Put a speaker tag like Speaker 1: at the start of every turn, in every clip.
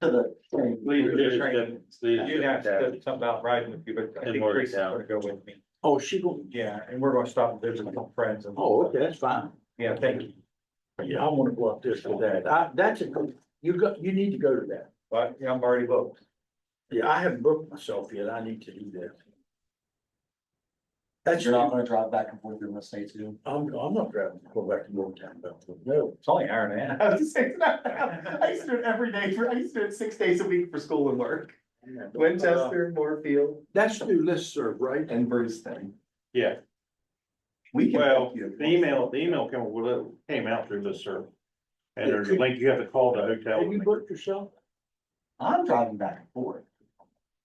Speaker 1: to the thing.
Speaker 2: Leave it
Speaker 1: Just
Speaker 2: there,
Speaker 1: trying-
Speaker 2: it's- it's leave
Speaker 3: You'd have
Speaker 2: it
Speaker 3: to
Speaker 2: there.
Speaker 3: put something about riding with you, but I
Speaker 2: And
Speaker 3: think
Speaker 2: work it
Speaker 3: Grace is
Speaker 2: out.
Speaker 3: gonna go with me.
Speaker 1: Oh, she go,
Speaker 3: Yeah, and we're gonna stop and visit with some friends and.
Speaker 1: oh, okay, that's fine.
Speaker 3: Yeah, thank you.
Speaker 1: Yeah, I wanna go up there for that. I, that's a, good- you got, you need to go to that.
Speaker 3: But yeah, I'm already booked.
Speaker 1: Yeah, I haven't booked myself yet. I need to do that. That's,
Speaker 4: You're not
Speaker 1: I'm,
Speaker 4: gonna drive back and forth through the state too.
Speaker 1: I'm not driving, to go back to Morgantown, but no.
Speaker 3: It's only an hour and a half.
Speaker 5: I was just saying, I used to do it every day for, I used to do it six days a week for school and work.
Speaker 2: Uh,
Speaker 5: Winchester, Moorfield
Speaker 1: That's through listserv, right?
Speaker 5: and Brewston.
Speaker 2: Yeah,
Speaker 5: We can.
Speaker 2: well,
Speaker 5: help you.
Speaker 2: the email, the email came, well, it came out through this server. And there's a link, you have to call the hotel.
Speaker 1: Have you booked yourself?
Speaker 5: I'm driving back and forth.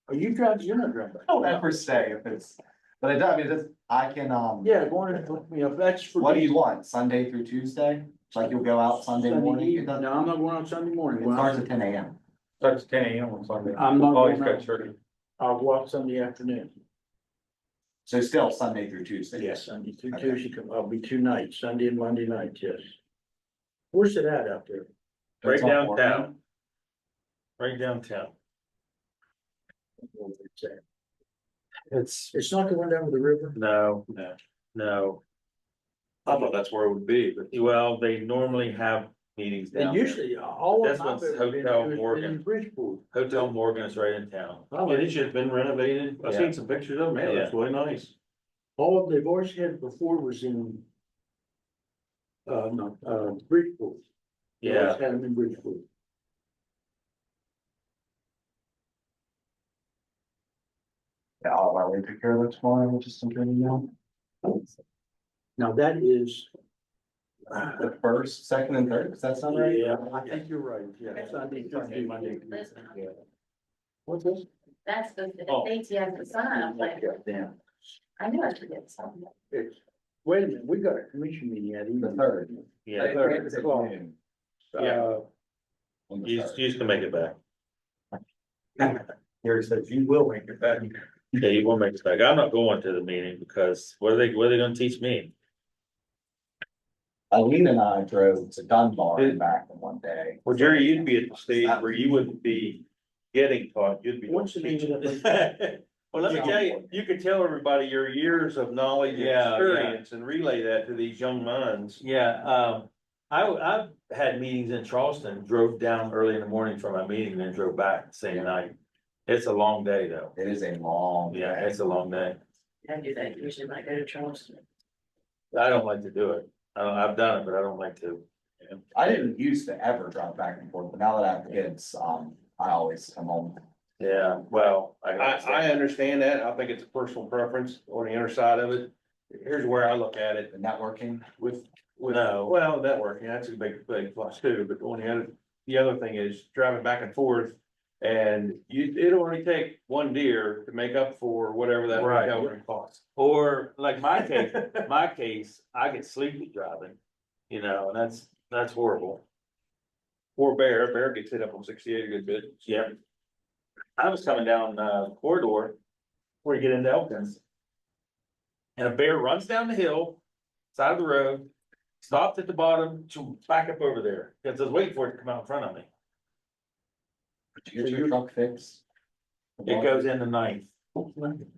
Speaker 1: Are you driving? You're not driving. back.
Speaker 5: I don't ever say if it's, but it does, I mean, it's, I can, um.
Speaker 1: Yeah, go on and look me up. That's for.
Speaker 5: What do
Speaker 1: me.
Speaker 5: you want, Sunday through Tuesday? Like you'll go out Sunday morning? It
Speaker 1: evening. No,
Speaker 5: doesn't-
Speaker 1: I'm not going out Sunday morning.
Speaker 5: It
Speaker 1: When
Speaker 5: starts
Speaker 1: I-
Speaker 5: at ten AM.
Speaker 3: Starts at ten AM on Sunday.
Speaker 1: I'm not
Speaker 3: Oh, he's
Speaker 1: going
Speaker 3: got
Speaker 1: out.
Speaker 3: church.
Speaker 1: I'll go out Sunday afternoon.
Speaker 5: So still Sunday through Tuesday.
Speaker 1: Yes, Sunday through
Speaker 5: Okay.
Speaker 1: Tuesday, come- I'll be two nights, Sunday and Monday night, yes. Where's it at out there?
Speaker 2: Right
Speaker 5: It's on board.
Speaker 2: downtown. Right downtown.
Speaker 1: It's at-
Speaker 2: It's.
Speaker 1: It's not the one down to the river?
Speaker 2: No, no, no. I thought that's where it would be, but. Well, they normally have meetings down
Speaker 1: And
Speaker 2: there.
Speaker 1: usually, uh, all of
Speaker 2: That's
Speaker 1: them I've
Speaker 2: what's
Speaker 1: ever been
Speaker 2: Hotel
Speaker 1: to has been in
Speaker 2: Morgan.
Speaker 1: Bridgeport.
Speaker 2: Hotel Morgan is right in town.
Speaker 1: Oh,
Speaker 2: it's just been renovated.
Speaker 3: I've seen some pictures of
Speaker 2: Man, that's really nice.
Speaker 1: All they've always had before was in uh, no, uh, Bridgeport. They always
Speaker 2: Yeah,
Speaker 1: Had them in Bridgeport.
Speaker 5: Yeah, I'll let you take care of it tomorrow, just something you know.
Speaker 1: Now that is, uh,
Speaker 5: The first, second and third, does that sound right?
Speaker 1: yeah, I think you're right, yeah, Sunday, Sunday, Monday. yeah. What's this?
Speaker 6: That's the, the
Speaker 2: Oh.
Speaker 6: dates you have to sign, I'm like,
Speaker 1: Damn.
Speaker 6: I knew I forget something.
Speaker 1: It's, wait a minute, we got a commission meeting at even.
Speaker 5: The third.
Speaker 2: yeah.
Speaker 5: Third is at
Speaker 1: Well,
Speaker 5: noon
Speaker 2: Yeah.
Speaker 1: Uh,
Speaker 5: on the
Speaker 2: You,
Speaker 5: third.
Speaker 2: you just can make it back.
Speaker 3: Gary says you will make it back.
Speaker 2: Yeah, you will make it back. I'm not going to the meeting because what are they, what are they gonna teach me?
Speaker 5: Eileen and I drove to Dunbar and back in one day.
Speaker 2: Well, Jerry, you'd be at the stage where you wouldn't be getting taught, you'd be.
Speaker 1: What's the name of
Speaker 2: Well, let me tell you, you could tell everybody your years of knowledge and
Speaker 3: Yeah, yeah.
Speaker 2: experience and relay that to these young minds. Yeah, um, I, I've had meetings in Charleston, drove down early in the morning from my meeting, then drove back the same night. It's a long day though.
Speaker 5: It is a long.
Speaker 2: Yeah,
Speaker 5: day.
Speaker 2: it's a long day.
Speaker 6: I do that usually when I go to Charleston.
Speaker 2: I don't like to do it. I, I've done it, but I don't like to.
Speaker 5: I didn't used to ever drive back and forth, but now that I have kids, um, I always come home.
Speaker 2: Yeah, well. I, I understand that. I think it's a personal preference on the inner side of it. Here's where I look at it.
Speaker 5: The networking,
Speaker 2: with, with, well, networking, that's a big, big plus too, but on the other, the other thing is driving back and forth. And you, it'll only take one deer to make up for whatever that hotel room costs. Or like my case, my case, I get sleepy driving, you know, and that's, that's horrible. Or bear, bear gets hit up on sixty-eight a good bit. Yeah. I was coming down, uh, corridor where you get into Elkins. And a bear runs down the hill side of the road, stopped at the bottom to back up over there, because I was waiting for it to come out in front of me.
Speaker 5: did you get your truck fixed?
Speaker 2: It goes in the ninth.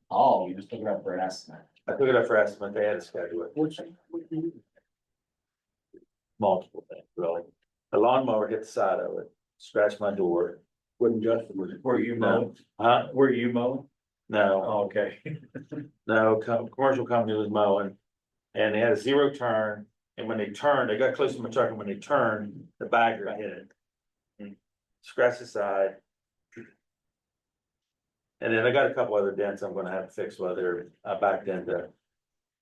Speaker 5: Oh, you just took it up for an estimate.
Speaker 2: I took it up for estimate, they had to schedule it,
Speaker 1: what's, what do you-
Speaker 2: multiple things, really. The lawnmower hit the side of it, scratched my door.
Speaker 1: wasn't Justin, was it?
Speaker 3: Were you mowing?
Speaker 2: Huh?
Speaker 3: Were you mowing?
Speaker 2: No,
Speaker 3: Oh, Okay.
Speaker 2: no, co- commercial company was mowing. And they had a zero turn, and when they turned, they got close to my truck, and when they turned, the bagger hit it. Mm. Scratched the side. And then I got a couple other dents I'm gonna have to fix whether I backed into.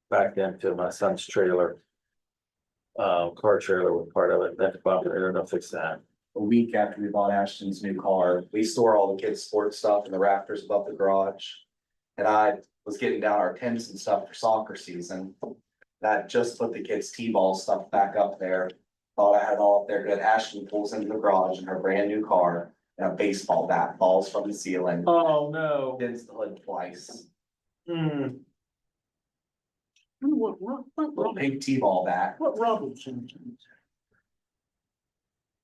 Speaker 2: Backed into my son's trailer. Uh, car trailer was part of it, that's about, I don't know, fix that.
Speaker 5: A week after we bought Ashton's new car, we store all the kids' sports stuff in the rafters above the garage. And I was getting down our tents and stuff for soccer season. That just put the kids' T-ball stuff back up there. Thought I had it all up there, but Ashton pulls into the garage in her brand new car and a baseball bat falls from the ceiling.
Speaker 2: Oh, no.
Speaker 5: Dents the hood twice.
Speaker 2: Hmm,
Speaker 1: What, what, what,
Speaker 5: Little
Speaker 1: Rob-
Speaker 5: pink T-ball bat.
Speaker 1: what Robinson?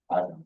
Speaker 5: I don't know.